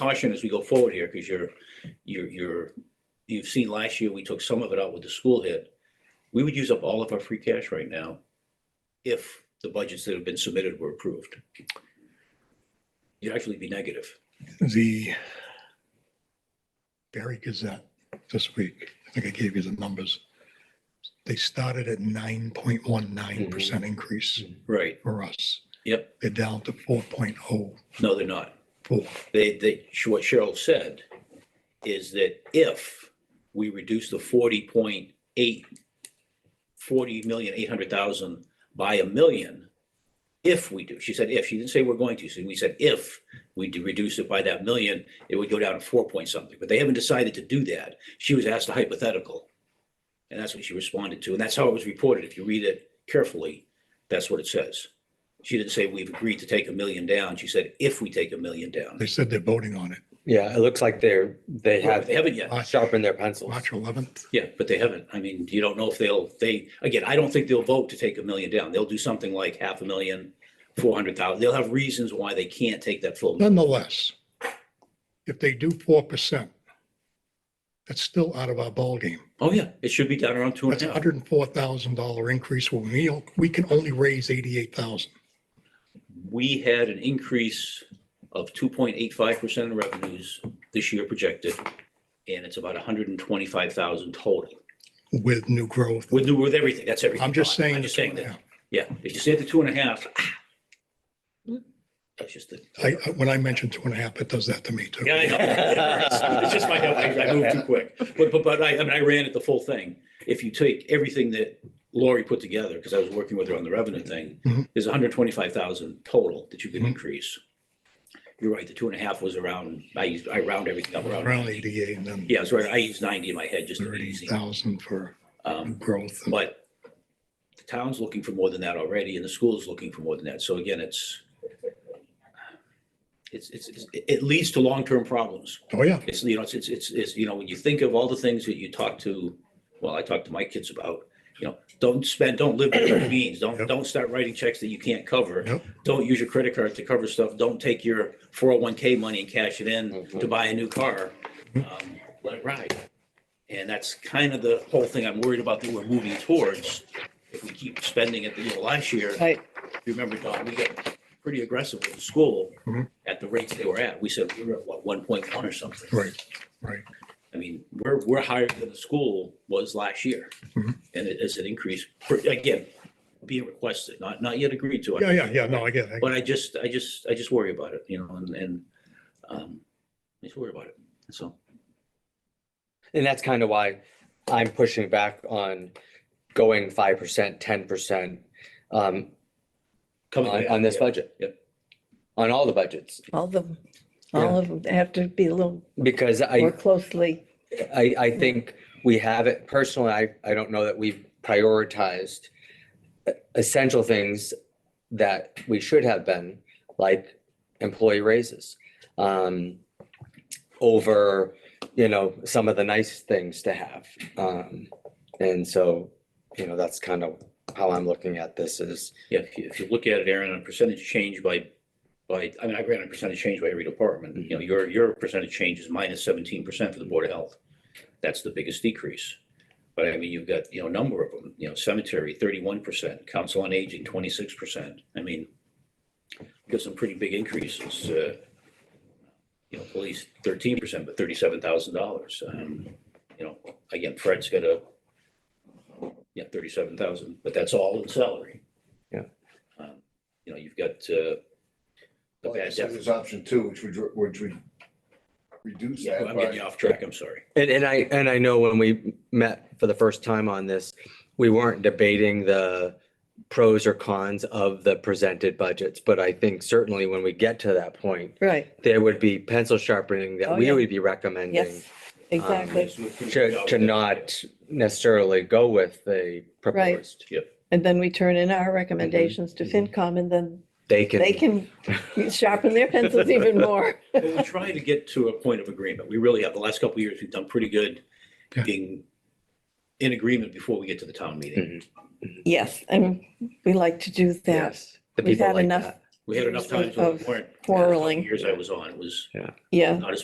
caution as we go forward here, because you're, you're, you're, you've seen last year, we took some of it out with the school hit. We would use up all of our free cash right now if the budgets that have been submitted were approved. You'd actually be negative. the Barry Gazette this week. I think I gave you the numbers. They started at nine point one nine percent increase Right. for us. Mm-hmm. Yep. They're down to four point oh No, they're not. four. They, they, what Cheryl said is that if we reduce the forty point eight, forty million, eight hundred thousand by a million, if we do, she said if, she didn't say we're going to, so we said if we do reduce it by that million, it would go down to four point something, but they haven't decided to do that. She was asked a hypothetical. And that's what she responded to, and that's how it was reported. If you read it carefully, that's what it says. She didn't say we've agreed to take a million down. She said if we take a million down. They said they're voting on it Yeah, it looks like they're, Well, They they have haven't yet. sharpened their pencils. March eleventh. Yeah, but they haven't. I mean, you don't know if they'll, they, again, I don't think they'll vote to take a million down. They'll do something like half a million, four hundred thousand. They'll have reasons why they can't take that full. million. Nonetheless, if they do four percent, that's still out of our ballgame. Oh, yeah, it should be down around two and That's a a half. hundred and four thousand dollar increase. When we, we can only raise eighty-eight thousand. We had an increase of two point eight five percent in revenues this year projected. And it's about hundred and twenty-five thousand total with new growth. with, with everything. That's everything. I'm just gone. saying. I'm just saying that. that. Yeah, if you say the two and a half. ah. That's just the. I, I- when I mentioned two and a half, it does that to me too. Yeah, I know. It's just my, I I moved too quick. But, but, but I, I mean, I ran it the full thing. If you take everything that Lori put together, because I was working with her on the revenue thing, Mhm. there's hundred twenty-five thousand total that you can Mhm. increase. You're right, the two and a half was around, I used, I round everything up around. Around eighty-eight and then Yeah, it's right. I used ninety in my head just to be thirty easy. thousand for Um, growth. And but the town's looking for more than that already, and the school's looking for more than that. So again, it's it's, it's, it's- it leads to long-term problems. Oh, yeah. It's, you know, it's, it's, it's, it's, you know, when you think of all the things that you talk to, well, I talk to my kids about, you know, don't spend, don't live below your means. Don't, Yep. don't start writing checks that you can't cover. Yep. Don't use your credit card to cover stuff. Don't take your four oh one K money and cash it in to buy a new car. Mm-hmm. Um, Let it ride. And that's kind of the whole thing I'm worried about that we're moving towards. If we keep spending it, you know, last year, Right. you remember, Don, we got pretty aggressive with the school Mhm. at the rates they were at. We said we were at what, one point one or something. Right. I mean, we're, we're higher than the school was last year. Mhm. And it is an increase, per- again, being requested, not, not yet agreed to. Yeah, yeah, yeah. No, I get it. But I just, I just, I just worry about it, you know, and, and, um, I just worry about it. So, And that's kind of why I'm pushing back on going five percent, ten percent um, coming on, back, on this Oh, yeah. budget. Yep. On all the budgets, All of them, all of them have to be a little because I. more closely. I, I think we have it personally, I, I don't know that we've prioritized essential things that we should have been, like employee raises. Um, over, you know, some of the nice things to have. Um, and so, you know, that's kind of how I'm looking at this is, Yeah, if you, if you look at it, Aaron, on percentage change by, by, I mean, I ran a percentage change by every department. You know, your, your percentage change is minus seventeen percent for the Board of Health. That's the biggest decrease. But I mean, you've got, you know, a number of them, you know, cemetery, thirty-one percent, council on aging, twenty-six percent. I mean, you've got some pretty big increases. uh, You know, police thirteen percent, but thirty-seven thousand dollars. Um, You know, again, Fred's got a, yeah, thirty-seven thousand, but that's all in salary. Um, You know, you've got uh, the Well, bad so debt. There's option two, which would, which would reduce Yeah, that I'm getting you by, off track, I'm sorry. and, and I, and I know when we met for the first time on this, we weren't debating the pros or cons of the presented budgets, but I think certainly when we get to that point, Right, there would be pencil sharpening Oh, that we yeah. would be recommending yes, um, exactly. to, to not necessarily go with the proposed. And then we turn in our recommendations to mhm. FinCom and then They they can, can sharpen their pencils even more. But We're trying to get to a point of agreement. We really have. The last couple of years, we've done pretty good Yeah. being in agreement before we get to the town meeting. Mhm. Yes, and we like to do that. yes, the We've people had like enough that. We had enough times Of with the warrant. quarreling. Years I was on, it was yeah. not as